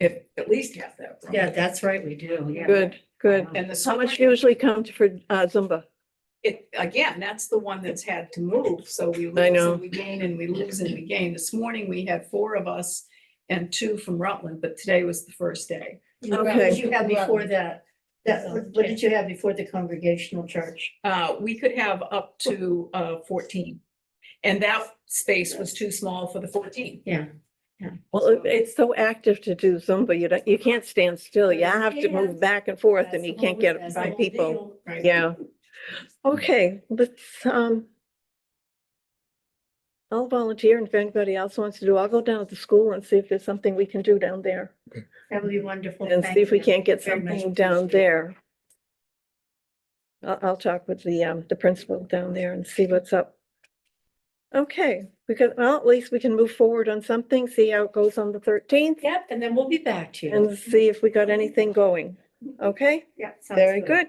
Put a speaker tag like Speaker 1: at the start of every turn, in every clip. Speaker 1: if at least half that. from
Speaker 2: Yeah,
Speaker 1: it.
Speaker 2: that's right, we do, yeah.
Speaker 3: Good, good.
Speaker 1: And the
Speaker 3: How
Speaker 1: so
Speaker 3: much
Speaker 1: much,
Speaker 3: usually comes for uh, Zumba?
Speaker 1: it, again, that's the one that's had to move, so we
Speaker 3: I
Speaker 1: lose
Speaker 3: know.
Speaker 1: and we gain and we lose and we gain. This morning, we had four of us and two from Rutland, but today was the first day.
Speaker 2: You got-
Speaker 3: Okay.
Speaker 2: what You had before that, that, what did you have before the congregational church?
Speaker 1: Uh, we could have up to, uh, fourteen. And that space was too small for the fourteen.
Speaker 2: Yeah.
Speaker 3: Well, it- it's so active to do Zumba, you don't, you can't stand still. You have to move back and forth and you can't get by people.
Speaker 1: Right.
Speaker 3: Yeah. Okay, let's, um, I'll volunteer and if anybody else wants to do, I'll go down to the school and see if there's something we can do down there
Speaker 2: That would be wonderful.
Speaker 3: and
Speaker 2: thank
Speaker 3: see if we
Speaker 2: you.
Speaker 3: can't get
Speaker 2: Very much
Speaker 3: something down
Speaker 2: appreciated.
Speaker 3: there. I'll, I'll talk with the, um, the principal down there and see what's up. Okay, because, well, at least we can move forward on something, see how it goes on the thirteenth
Speaker 2: Yep, and then we'll be back to you.
Speaker 3: and see if we got anything going. Okay?
Speaker 2: Yep, sounds
Speaker 3: Very good.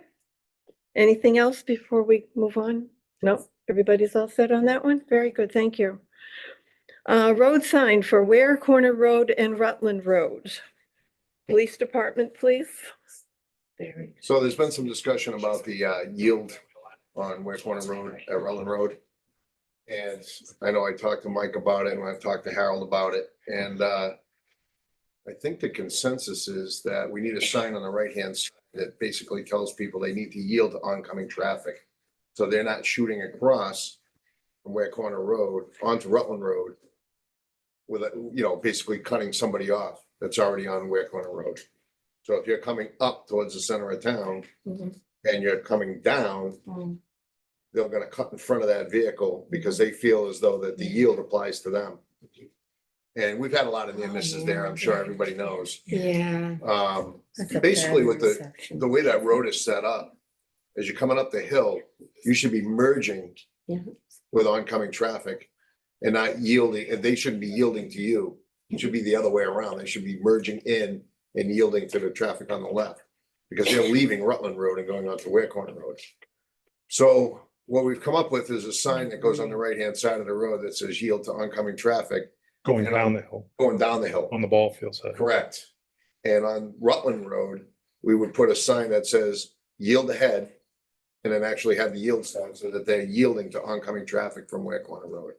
Speaker 3: Anything else before we move on? No, everybody's all set on that one? Very good, thank you. Uh, road sign for Ware Corner Road and Rutland Road. Police Department, please.
Speaker 2: Very
Speaker 4: So there's been some discussion about the uh, yield on Ware Corner Road, at Rutland Road. And I know I talked to Mike about it and I've talked to Harold about it and uh, I think the consensus is that we need a sign on the right-hand side that basically tells people they need to yield to oncoming traffic. So they're not shooting across from Ware Corner Road onto Rutland Road with, a- you know, basically cutting somebody off that's already on Ware Corner Road. So if you're coming up towards the center of town
Speaker 2: Mhm.
Speaker 4: and you're coming down,
Speaker 2: Mm.
Speaker 4: they're gonna cut in front of that vehicle because they feel as though that the yield applies to them. And we've had a lot of near misses there, I'm sure everybody knows.
Speaker 2: Yeah.
Speaker 4: Um,
Speaker 2: that's a
Speaker 4: Basically,
Speaker 2: bad
Speaker 4: with the-
Speaker 2: intersection.
Speaker 4: the way that road is set up, as you're coming up the hill, you should be merging
Speaker 2: Yeah.
Speaker 4: with oncoming traffic and not yielding, and they shouldn't be yielding to you. It should be the other way around. They should be merging in and yielding to the traffic on the left because they're leaving Rutland Road and going onto Ware Corner Road. So what we've come up with is a sign that goes on the right-hand side of the road that says yield to oncoming traffic
Speaker 5: going
Speaker 4: you know,
Speaker 5: down the hill
Speaker 4: going down the hill.
Speaker 5: on the ball field side.
Speaker 4: Correct. And on Rutland Road, we would put a sign that says yield ahead. And then actually have the yield sign so that they're yielding to oncoming traffic from Ware Corner Road.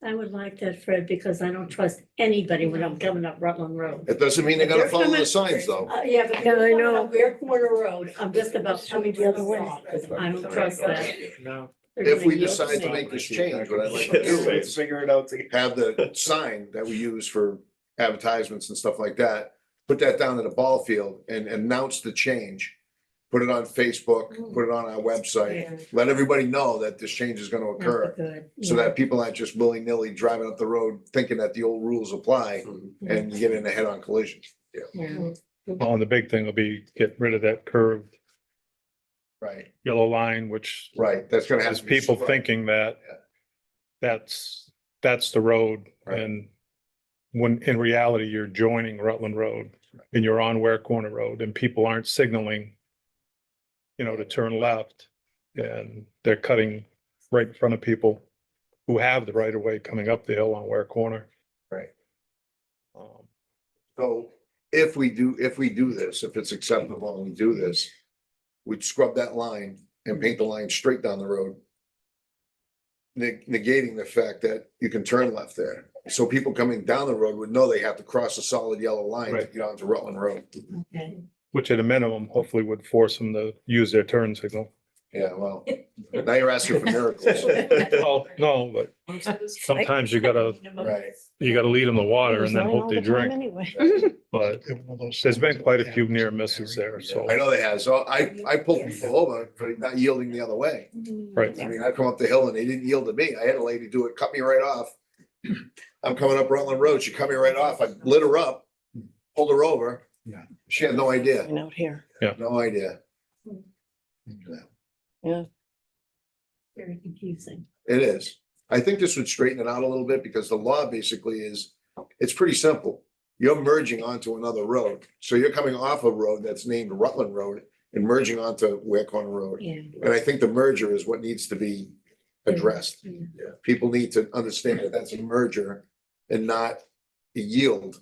Speaker 2: I would like that, Fred, because I don't trust anybody when I'm coming up Rutland Road.
Speaker 4: It doesn't mean they're gonna
Speaker 3: They're
Speaker 4: follow
Speaker 3: coming-
Speaker 4: the signs though.
Speaker 2: Uh, yeah, but
Speaker 3: Yeah, I
Speaker 2: coming
Speaker 3: know.
Speaker 2: up Ware Corner Road, I'm just about coming the other way, 'cause I don't trust that.
Speaker 6: No.
Speaker 2: They're
Speaker 4: If
Speaker 2: gonna
Speaker 4: we
Speaker 2: yield
Speaker 4: decide to
Speaker 2: me.
Speaker 4: make this change, what I'd like to do is
Speaker 6: Figure it out together.
Speaker 4: have the sign that we use for advertisements and stuff like that. Put that down at the ball field and announce the change. Put it on Facebook, put it on our website.
Speaker 2: Mm. Yeah,
Speaker 4: Let everybody know that this change is gonna
Speaker 2: not
Speaker 4: occur.
Speaker 2: good,
Speaker 4: So
Speaker 2: yeah.
Speaker 4: that people aren't just willy-nilly driving up the road thinking that the old rules apply and you get in a head-on collision.
Speaker 2: Yeah.
Speaker 5: Well, and the big thing will be get rid of that curved
Speaker 4: Right,
Speaker 5: yellow line, which
Speaker 4: right. That's gonna have.
Speaker 5: has
Speaker 4: to be
Speaker 5: people
Speaker 4: struck.
Speaker 5: thinking that
Speaker 4: Yeah.
Speaker 5: that's, that's the road.
Speaker 4: Right.
Speaker 5: And when in reality, you're joining Rutland Road and you're on Ware Corner Road and people aren't signaling, you know, to turn left and they're cutting right in front of people who have the right of way coming up the hill on Ware Corner.
Speaker 4: Right.
Speaker 5: Um,
Speaker 4: So if we do, if we do this, if it's acceptable and we do this, we'd scrub that line and paint the line straight down the road. neg- Negating the fact that you can turn left there. So people coming down the road would know they have to cross a solid yellow line to
Speaker 5: Right.
Speaker 4: get onto Rutland Road.
Speaker 2: Okay.
Speaker 5: Which at a minimum, hopefully would force them to use their turn signal.
Speaker 4: Yeah, well, now you're asking for miracles.
Speaker 5: Well, no, but sometimes you gotta,
Speaker 4: Right.
Speaker 5: you gotta lead them to water and then
Speaker 3: Design all
Speaker 5: hope they
Speaker 3: the time
Speaker 5: drink.
Speaker 3: Anyway,
Speaker 5: But there's been quite a few near misses there, so.
Speaker 4: I know they have. So I, I pulled people over for not yielding the other way.
Speaker 5: Right.
Speaker 4: I mean, I come up the hill and they didn't yield to me. I had a lady do it, cut me right off. I'm coming up Rutland Road. She cut me right off. I lit her up, pulled her over.
Speaker 5: Yeah.
Speaker 4: She had no idea,
Speaker 3: and out here.
Speaker 4: no idea.
Speaker 2: Very confusing.
Speaker 4: It is. I think this would straighten it out a little bit because the law basically is, it's pretty simple. You're merging onto another road. So you're coming off a road that's named Rutland Road and merging onto Ware Corner Road.
Speaker 2: Yeah.
Speaker 4: And I think the merger is what needs to be addressed.
Speaker 2: Yeah.
Speaker 4: People need to understand that that's a merger and not a yield